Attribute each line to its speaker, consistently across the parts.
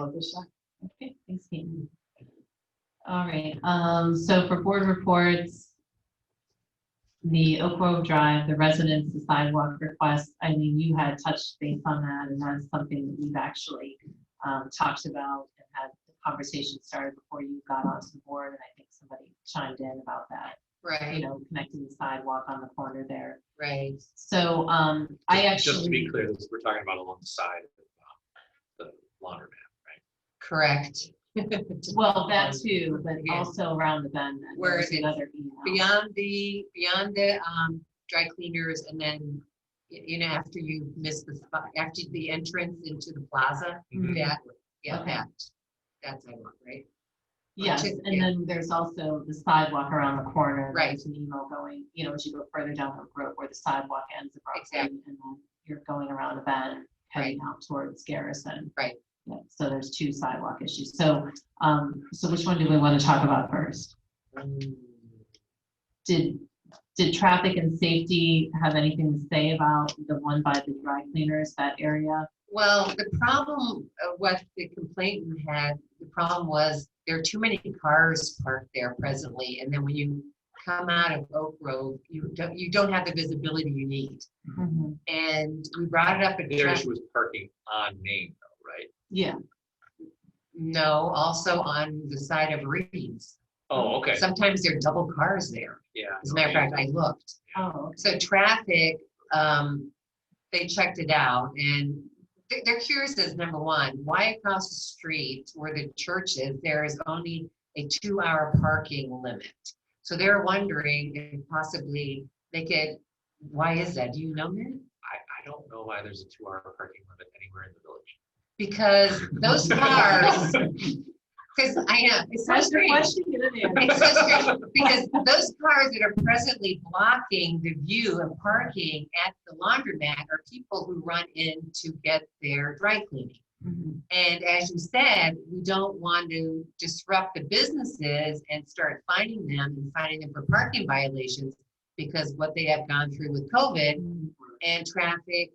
Speaker 1: Lisa.
Speaker 2: Okay, thanks, Caitlin. All right, um, so for board reports, the Oak Grove Drive, the residents, the sidewalk request, I mean, you had touched base on that, and that's something that we've actually um, talked about and had the conversation started before you got onto the board, and I think somebody chimed in about that, you
Speaker 1: Right,
Speaker 2: know, connecting the sidewalk on the corner there.
Speaker 1: right.
Speaker 2: So, um, I
Speaker 3: Just-
Speaker 2: actually.
Speaker 3: Just to be clear, this- we're talking about alongside uh, the laundromat.
Speaker 1: Correct.
Speaker 2: Well, that too, but
Speaker 1: Yeah.
Speaker 2: also around the bend. then
Speaker 1: Where
Speaker 2: there's
Speaker 1: it's
Speaker 2: another email.
Speaker 1: Beyond the, beyond the um, dry cleaners and then, y- you know, after you miss the spot, after the entrance into the plaza,
Speaker 2: Mhm.
Speaker 1: that, yeah,
Speaker 2: Okay.
Speaker 1: that, that's I want, right?
Speaker 2: Yes,
Speaker 1: Just-
Speaker 2: and
Speaker 1: yeah.
Speaker 2: then there's also the sidewalk around the corner. and
Speaker 1: Right.
Speaker 2: There's an email going, you know, as you go further down the road where the sidewalk ends abruptly, and
Speaker 1: Exactly.
Speaker 2: then you're going around a bend, heading out towards Garrison.
Speaker 1: Right.
Speaker 2: Yeah, so there's two sidewalk issues. So, um, so which one do we want to talk about first?
Speaker 1: Mm.
Speaker 2: Did, did traffic and safety have anything to say about the one by the dry cleaners, that area?
Speaker 1: Well, the problem, uh, what the complainant had, the problem was there are too many cars parked there presently. And then when you come out of Oak Grove, you don't, you don't have the visibility you need. Mm-hmm. And we brought it up at
Speaker 3: Their
Speaker 1: traffic,
Speaker 3: issue was parking on Main though, right?
Speaker 2: Yeah,
Speaker 1: no, also on the side of Reed's.
Speaker 3: Oh, okay,
Speaker 1: Sometimes there are double cars there.
Speaker 3: yeah.
Speaker 1: As a matter of fact, I looked.
Speaker 2: oh,
Speaker 1: So traffic, um, they checked it out and they- they're curious as number one, why across the street where the church is, there is only a two-hour parking limit? So they're wondering if possibly they could, why is that? Do you know that?
Speaker 3: I, I don't know why there's a two-hour parking limit anywhere in the
Speaker 1: Because
Speaker 3: village.
Speaker 1: those cars, because I know, it's frustrating. It's frustrating because those cars that are presently blocking the view and parking at the laundromat are people who run in to get their dry cleaning.
Speaker 2: Mhm.
Speaker 1: And as you said, we don't want to disrupt the businesses and start fining them and fining them for parking violations because what they have gone through with COVID and traffic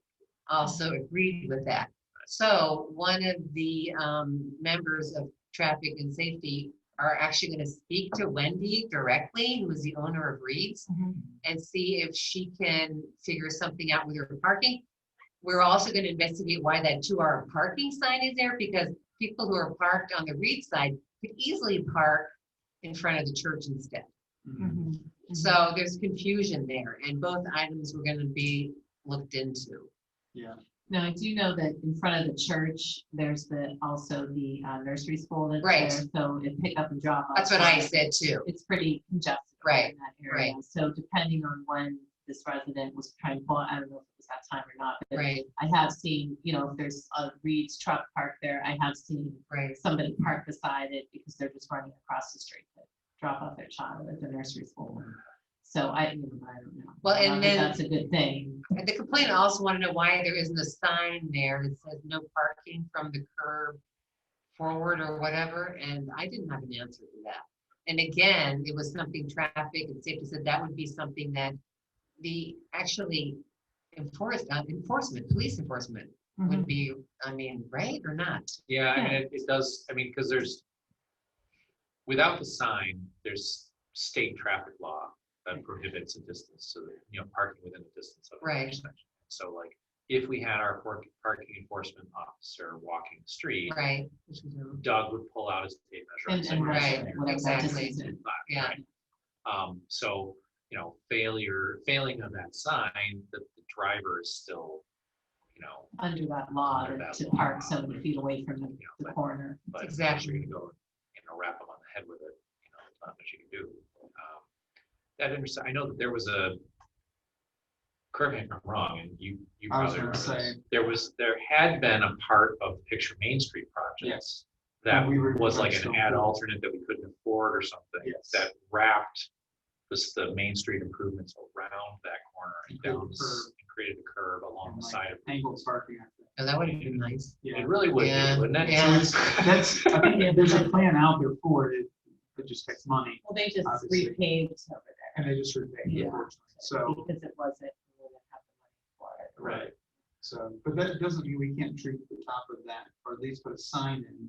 Speaker 1: also agreed with that. So one of the um, members of traffic and safety are actually going to speak to Wendy directly, who is the owner of Reed's,
Speaker 2: Mhm.
Speaker 1: and see if she can figure something out with her parking. We're also going to investigate why that two-hour parking sign is there because people who are parked on the Reed side could easily park in front of the church instead.
Speaker 3: Mm-hmm.
Speaker 2: Mhm. Mhm.
Speaker 1: So there's confusion there, and both items were gonna be looked into.
Speaker 2: Now, I do know that in front of the church, there's the, also the uh, nursery school that's
Speaker 1: Right.
Speaker 2: there, so it pick up and drop off.
Speaker 1: That's what I said too.
Speaker 2: It's pretty congested.
Speaker 1: Right,
Speaker 2: In that area, so depending on when this resident was trying to, pull, I don't know if it was that time or not, but
Speaker 1: Right,
Speaker 2: I have seen, you know, if there's a Reed's truck parked there, I have seen
Speaker 1: right,
Speaker 2: somebody park beside it because they're just running across the street to drop off their child at the nursery school. So I, I don't know.
Speaker 1: Well,
Speaker 2: I don't
Speaker 1: and
Speaker 2: think
Speaker 1: then-
Speaker 2: That's a good thing.
Speaker 1: and the complainant also wanted to know why there isn't a sign there that says no parking from the curb forward or whatever, and I didn't have an answer to that. And again, it was something traffic and safety said that would be something that the actually enforced, uh, enforcement, police enforcement
Speaker 2: Mhm.
Speaker 1: would be, I mean, right or not?
Speaker 3: Yeah, I mean, it, it does, I mean, because there's, without the sign, there's state traffic law that prohibits a distance, so that, you know, parking within a distance of an
Speaker 1: Right.
Speaker 3: intersection. So like, if we had our park- parking enforcement officer walking the street,
Speaker 1: Right. which we don't.
Speaker 3: Doug would pull out his tape
Speaker 2: And,
Speaker 3: measure. and say,
Speaker 2: and
Speaker 3: "We're
Speaker 1: Right,
Speaker 3: saying
Speaker 2: whatever that
Speaker 1: exactly.
Speaker 2: distance is.
Speaker 3: black,"
Speaker 1: Yeah.
Speaker 3: right? Um, so, you know, failure, failing of that sign, the, the driver is still, you know,
Speaker 2: under that law
Speaker 3: Under
Speaker 2: to-
Speaker 3: that
Speaker 2: to
Speaker 3: law.
Speaker 2: park so many feet away from the-
Speaker 3: Yeah,
Speaker 2: the
Speaker 3: but-
Speaker 2: corner.
Speaker 3: but unless
Speaker 1: Exactly.
Speaker 3: you're gonna go, you know, wrap them on the head with it, you know, it's not much you can do. Um, That interest, I know that there was a, correct me if I'm wrong, and you, you
Speaker 4: I was
Speaker 3: probably
Speaker 4: gonna
Speaker 3: remember this.
Speaker 4: say-
Speaker 3: There was, there had been a part of Picture Main Street projects that
Speaker 4: And we were
Speaker 3: was like an
Speaker 4: still-
Speaker 3: ad alternate that we couldn't afford or something.
Speaker 4: Yes.
Speaker 3: That wrapped this, the Main Street improvements around that corner and
Speaker 4: Created a
Speaker 3: down, s-
Speaker 4: curve.
Speaker 3: created a curve along
Speaker 4: and,
Speaker 3: the
Speaker 4: like,
Speaker 3: side of.
Speaker 4: Angled parking. I think.
Speaker 1: Oh, that would have been nice.
Speaker 4: Yeah,
Speaker 3: It really would, be,
Speaker 1: Yeah,
Speaker 3: wouldn't it?
Speaker 1: yeah.
Speaker 4: that's, I think there's a plan out there for it, it just takes money,
Speaker 2: Well, they just
Speaker 4: Obviously.
Speaker 2: repaved over there
Speaker 4: and they just sort of pay
Speaker 2: Yeah.
Speaker 4: it forward. So,
Speaker 2: because it wasn't. we didn't have the money for it.
Speaker 4: right, so, but that doesn't mean we can't treat the top of that, or at least put a sign in